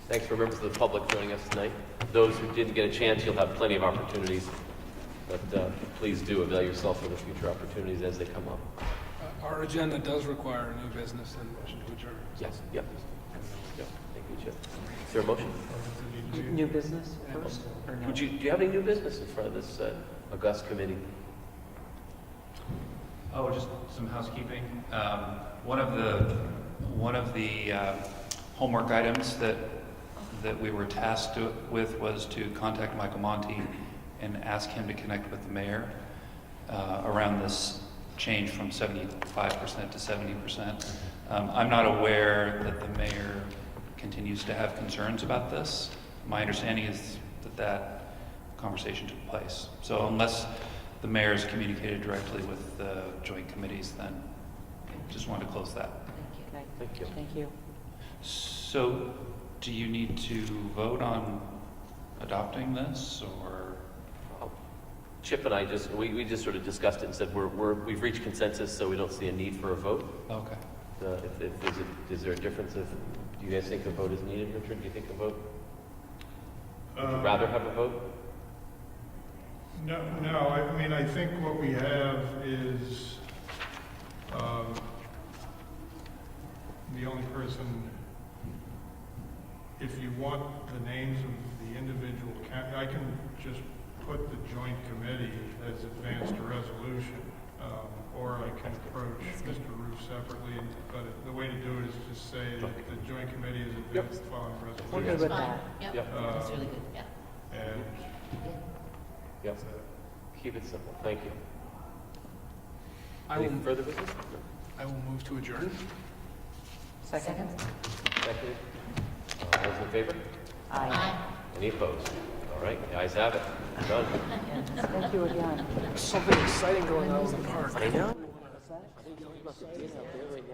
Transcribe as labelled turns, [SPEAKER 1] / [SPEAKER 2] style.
[SPEAKER 1] Thanks for members of the public joining us tonight. Those who didn't get a chance, you'll have plenty of opportunities, but uh, please do avail yourself of the future opportunities as they come up.
[SPEAKER 2] Uh, Our agenda does require new business and motion to adjourn.
[SPEAKER 1] Yes, yep. Yep. Thank you, Chip. Is there a motion?
[SPEAKER 3] New business first, or no?
[SPEAKER 1] Would you, do you have any new business in front of this uh, august committee?
[SPEAKER 4] Oh, just some housekeeping. Um, One of the, one of the uh, homework items that, that we were tasked to- with was to contact Michael Monty and ask him to connect with the mayor uh, around this change from 75% to 70%. Um, I'm not aware that the mayor continues to have concerns about this. My understanding is that that conversation took place. So unless the mayor's communicated directly with the joint committees, then just wanted to close that.
[SPEAKER 3] Thank
[SPEAKER 1] Thank you.
[SPEAKER 3] you. Thank you.
[SPEAKER 4] So do you need to vote on adopting this or?
[SPEAKER 1] Chip and I just, we, we just sort of discussed it and said we're, we're, we've reached consensus, so we don't see a need for a vote.
[SPEAKER 4] Okay.
[SPEAKER 1] Uh, If, if, is it, is there a difference if, do you guys think a vote is needed, Richard? Do you think a vote? Would
[SPEAKER 5] Um,
[SPEAKER 1] you rather have a vote?
[SPEAKER 5] No, no, I mean, I think what we have is, um, the only person, if you want the names of the individual, ca- I can just put the joint committee as advanced a resolution, um, or I can approach Mr. Roof separately, and- but the way to do it is just say that the joint committee is advanced following
[SPEAKER 3] I'm good
[SPEAKER 5] resolution.
[SPEAKER 3] with
[SPEAKER 6] Fine,
[SPEAKER 3] that.
[SPEAKER 6] yep,
[SPEAKER 1] Yep.
[SPEAKER 6] that's really good, yeah.
[SPEAKER 5] And
[SPEAKER 1] Yep.
[SPEAKER 5] that's it.
[SPEAKER 1] Keep it simple. Thank you.
[SPEAKER 2] I will,
[SPEAKER 1] Any further business?
[SPEAKER 2] I will move to adjourn.
[SPEAKER 3] Second?
[SPEAKER 1] No. Seconded. All those in favor?
[SPEAKER 3] Aye.
[SPEAKER 6] Aye.
[SPEAKER 1] Any opposed? All right, the ayes have it. Done.
[SPEAKER 3] Thank you again.
[SPEAKER 2] Something exciting going on in the park.
[SPEAKER 1] I know.